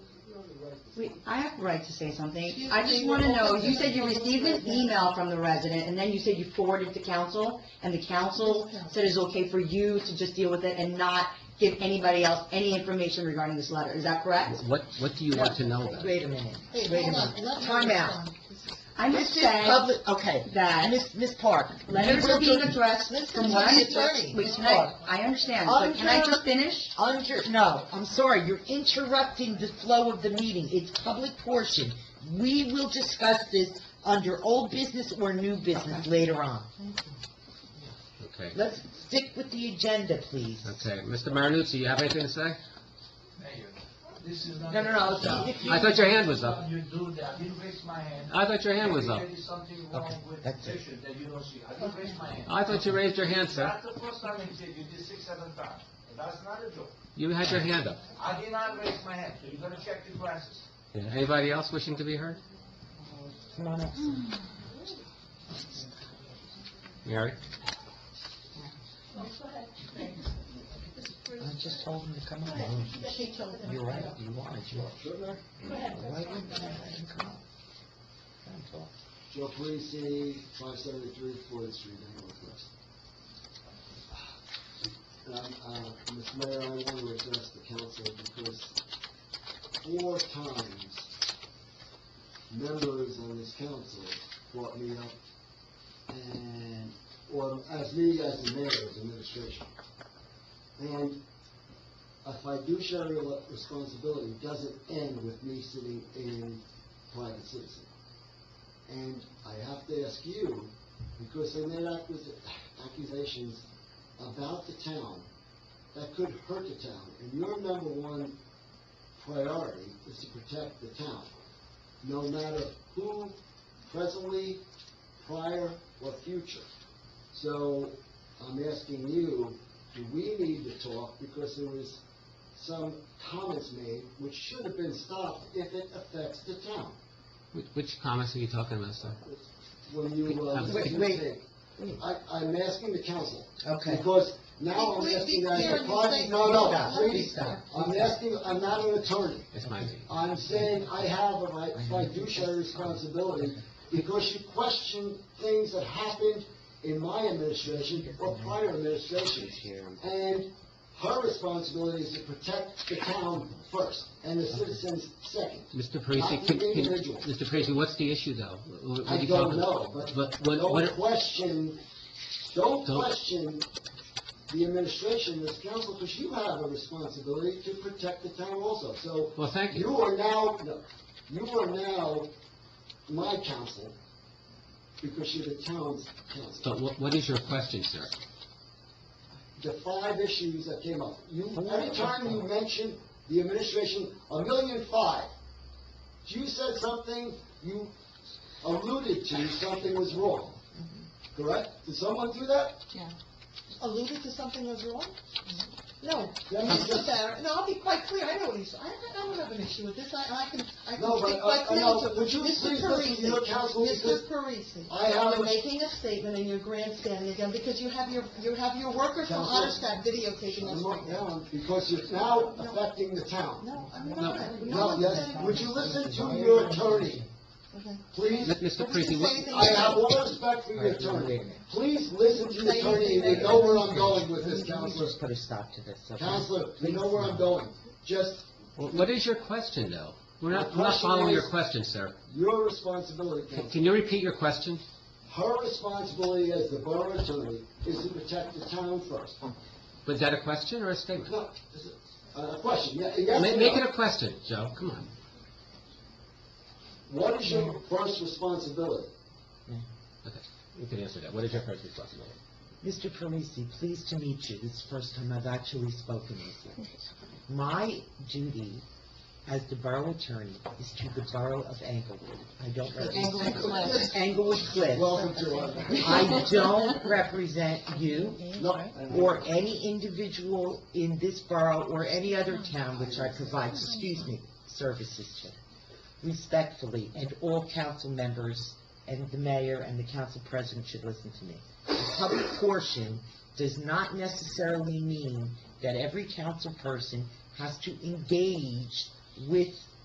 We, I have the right to say something. Excuse I just me, want to we're know, open to you said you public received an business. email from the resident, and then you said you forwarded it to council, and the council said it's okay for you to just deal with it and not give anybody else any information regarding this letter. Is that correct? What, what do you want to know then? Wait a minute, Hey, wait a hold on, minute, let me time out. respond. I'm just This is saying public, okay, that Miss Ms. Park. letters you are will being do- addressed from Listen to what the I'm... attorney. Wait, can I, I understand, but can I just finish? Under, no, I'm sorry, you're interrupting the flow of the meeting, it's public portion. We will discuss this under old business or new business later on. Okay, Let's stick with the agenda, please. okay. Mr. Marinucci, you have anything to say? Mayor, this is not. No, no, no, No. if you- I thought your hand was up. You do that, I didn't raise my hand. I thought your hand was up. There is something Okay, wrong with that's it. petition that you don't see, I didn't raise my hand. I thought you raised your hand, sir. That's the first time you did, you did six, seven times, And that's not a joke. You had your hand up. I did not raise my hand, so you're gonna check your glasses. Yeah. Anybody else wishing to be heard? Come on up. Mary? I just told him to come up. You're right, you wanted, you Why didn't you let him come up? Let him talk. Joe Parisi, 573 Ford Street, in Northwest. And I'm, uh, Mr. Mayor, I want to address the council because four times members on this council brought me up and, or as me as the mayor's administration. And a fiduciary responsibility doesn't end with me sitting in private citizen. And I have to ask you, because they made accus- accusations about the town that could hurt the town, and your number one priority is to protect the town, no matter who, presently, prior, or future. So, I'm asking you, do we need to talk, because there was some comments made which should have been stopped if it affects the town? Wh- Which comments are you talking about, sir? when you, uh, Wait, you wait. say- I, I'm asking the council, Okay. because now I'm Please asking be that clear the and party, say- no, no, Stop, please, stop. I'm asking, I'm not an attorney. It's my meeting. I'm saying I have a right, fiduciary responsibility, because you question things that happened in my administration or prior administrations. And her responsibility is to protect the town first, and the citizens second. Mr. Parisi, Not can- the can- individual. Mr. Parisi, what's the issue, though? Wh- wh- what are I you don't talking know, about? but But what- don't what- question, don't Don't- question the administration, this council, because you have a responsibility to protect the town also. So well, thank you you. are now, no, you are now my council because you're the town's So council. wh- what is your question, sir? The five issues that came up, you, every time you mention the administration, a million five. You said something, you alluded to something was wrong, correct? Did someone do that? Alluded to something was wrong? No, Mm-hmm. Let me Mr. just- Barrett, no, I'll be quite clear, I know what he's, I, I don't have an issue with this, I, I can, I can No, but, speak uh, quite uh, clearly no, to. would you Mr. please listen to your Parisi, counsel, because Mr. Parisi, I have you're a- making a statement and you're grandstanding again, because you have your, you have your worker from Counsel? Ottstock videotaping us I'm right not now. down because you're now affecting the town. No, I'm not, no No, one's yes, saying- would you listen to your attorney, Okay. please? M- Mr. Don't you Parisi, what- say anything I have else. all respect for your Alright, now wait a attorney. minute. Please listen to your attorney, and you know where I'm going with this, Let me counselor. just put a stop to this, okay? Counselor, you know where I'm going. Just, Wh- What is your question, though? We're My not, we're not question following your is- question, sir. your responsibility, Can- counselor. Can you repeat your question? Her responsibility as the borough attorney is to protect the town first. Was that a question or a statement? No, is it- uh, a question, ye- yes Ma- or Make it no? a question, Joe, come on. What is your first responsibility? You can answer that. What is your first responsibility? Mr. Parisi, pleased to meet you. This is the first time I've actually spoken with you. My duty as the borough attorney is to the borough of Englewood. I don't represent... Englewood Cliffs. Welcome to our... I don't represent you No, or any individual in this borough or any other town which I provide, excuse me, services to. Respectfully, and all council members and the mayor and the council president should listen to me. The public portion does not necessarily mean that every council person has to engage with